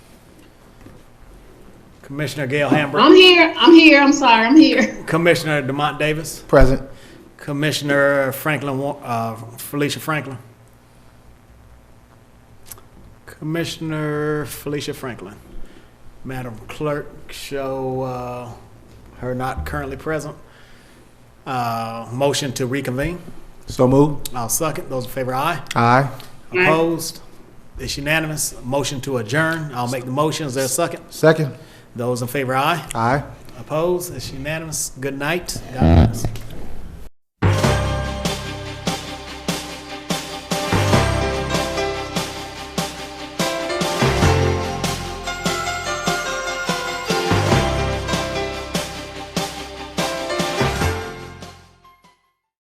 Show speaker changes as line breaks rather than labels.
Commissioner Gail Hamburg,
I'm here, I'm here, I'm sorry, I'm here.
Commissioner Demont Davis,
Present.
Commissioner Franklin, Wa- uh, Felicia Franklin. Commissioner Felicia Franklin. Madam Clerk, show uh, her not currently present. Uh, Motion to reconvene.
So moved.
I'll second. Those in favor, aye.
Aye.
Aye.
Opposed? It's unanimous. Motion to adjourn. I'll make the motion. Is there a second?
Second.
Those in favor, aye.
Aye.
Opposed? It's unanimous. Good night. God bless.